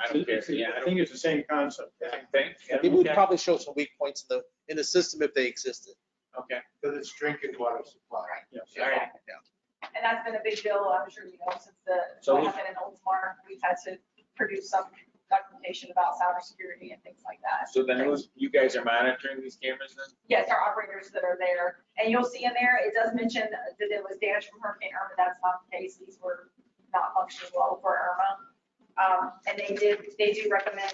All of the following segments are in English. I don't care, It's- yeah, I I don't think it's the same concept. I think, yeah, It would okay, probably show some weak points in the, in the system if they existed. Okay, Because it's drinking water supply. all right. And that's been a big deal, I'm sure you know, since the, So what we- happened in Oldsmar, we've had to produce some documentation about cybersecurity and things like that. So then who's- you guys are monitoring these cameras then? Yes, our operators that are there, and you'll see in there, it does mention that it was damage from Hurricane Irma, that's not the case, these were not functioning well for Irma. Um, and they did, they do recommend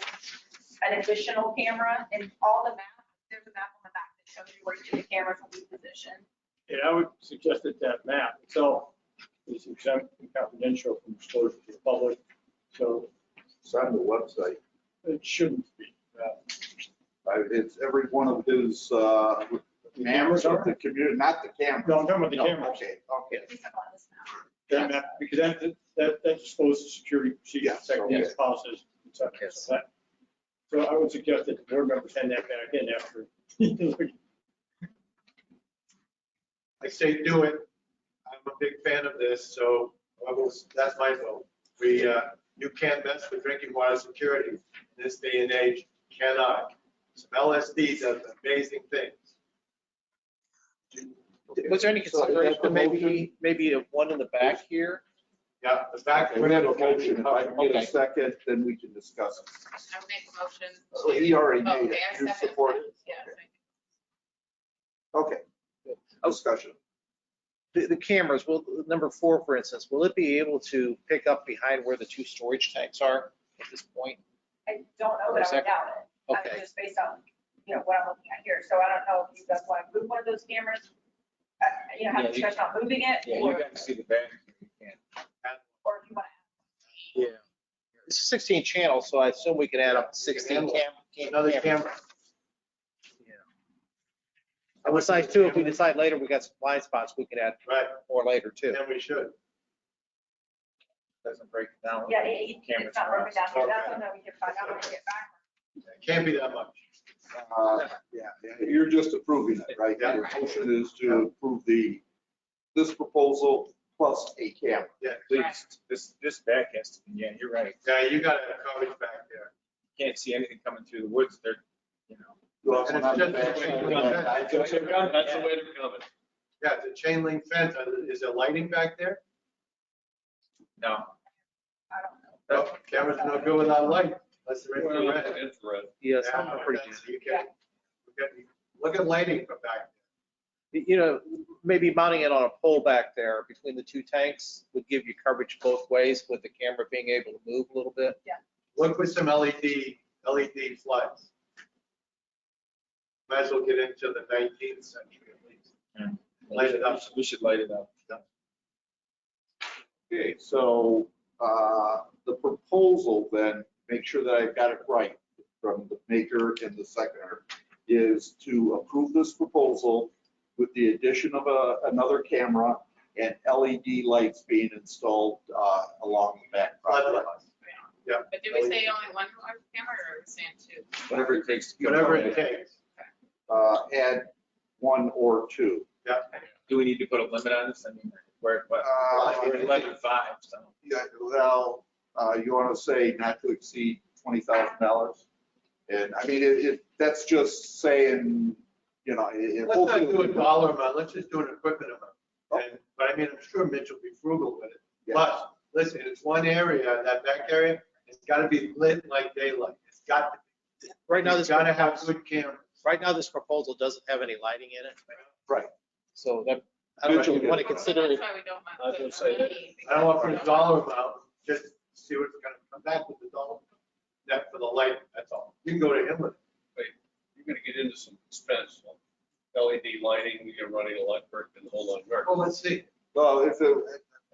an additional camera and all the map, there's a map on the back that shows you where each of the cameras will be positioned. And I would suggest that that map itself is exempt and confidential from disclosure to the public, so It's on the website. it shouldn't be. uh, I- It's every one of his, uh, members of the community, not the camera. No, I'm talking about the No, cameras. Okay, okay. At least I'm on this map. That map, because that, that, that discloses security Yeah, procedures, okay. security policies, et cetera. Yes. That- So I would suggest that the board members hand that back in after. I say do it. I'm a big fan of this, so I will, that's my vote. We, uh, you can't mess with drinking water security in this day and age, cannot. Some LSD does amazing things. Was there any So is that consideration, the motion? maybe, maybe a one in the back here? Yeah, the fact. We're gonna have a motion. If I can get a second, then we can discuss it. I would make a motion. So He already made it. Okay, I You Oh, second. support it. Yes, I Okay. Discussion. The, the cameras, will, number four, for instance, will it be able to pick up behind where the two storage tanks are at this point? I don't know, but I would doubt it. I mean, Okay. Just based on, you know, what I'm looking at here. So I don't know if you guys want to move one of those cameras. uh, You know, have Yeah, a you- discussion on moving it Yeah, or, you guys see the back. or if you want Yeah. It's sixteen channels, so I assume we can add up sixteen Handle it. cam. Another cameras. camera. And besides too, if we decide later, we got some blind spots, we could add Right, more later too. then we should. Doesn't break it down. to, yeah, it- it- it's not broken down. here. That's something we can find out when we get back. Can't be that much. Uh, Yeah, yeah, you're just approving it, right? Yeah. Your motion is to approve the, this proposal plus a camera. Please, this, this back has to, yeah, you're right. Yeah, you gotta have coverage back there. Can't see anything coming through the woods, they're, you know. And it's just- That's the way to go. Yeah, the chain link fence, uh, is there lighting back there? No. I don't know. No, cameras no good without light, unless they're infrared. Yes, Yeah, I'm pretty good. that's- you can- you can- Look at lighting from back. you know, maybe mounting it on a pole back there between the two tanks would give you coverage both ways with the camera being able to move a little bit. Look with some E LED, LED floods. Might as well get into the nineteenth century at least. Light it up. We should light it up. Okay, so uh, the proposal then, make sure that I've got it right from the maker and the seconder, is to approve this proposal with the addition of a- another camera and LED lights being installed uh, along the back property line. think. But did we say only one large camera or are we saying two? Whatever it takes. to get Whatever light. it takes. Uh, Add one or two. Yeah. Do we need to put a limit on this? I mean, we're, we're Uh, we're at eleven five, so. Yeah, Well, uh, you want to say not to exceed $20,000? And I mean, it, it- that's just saying, you know, it. it- Let's not do a dollar amount, let's just do an equipment amount. And- But I mean, I'm sure Mitch will be frugal with it. Yeah. But, listen, it's one area, that back area, it's gotta be lit like daylight. It's got, Right now, it's this, gotta have good cameras. right now, this proposal doesn't have any lighting in it. Right. So that, I don't know, you want to consider That's it. why we don't I want. was gonna to say that. I don't want to put a dollar amount, just see what's gonna come back with the dollar. That for the light, that's all. You can go to him with it. you're gonna get into some expense. on LED lighting, you're running electric and the whole lot of work. Well, let's see. Well, if it,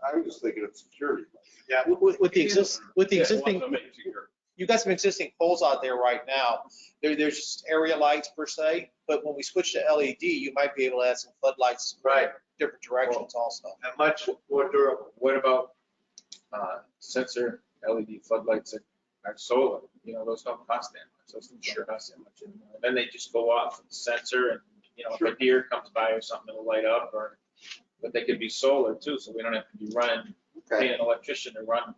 I was just thinking of security. Yeah. With, with the exist, with the Yeah, existing, well, I mean, to your- you've got some existing poles out there right now. There, there's just area lights per se, but when we switch to LED, you might be able to add some floodlights. Right. Different directions also. And much more durable. What about uh, sensor LED floodlights that are solar? You know, those don't cost that much. Those don't sure cost that much anymore. Then they just go off with the sensor and, you know, if a deer comes by or something, it'll light up or, but they could be solar too, so we don't have to be running, Okay. paying an electrician to run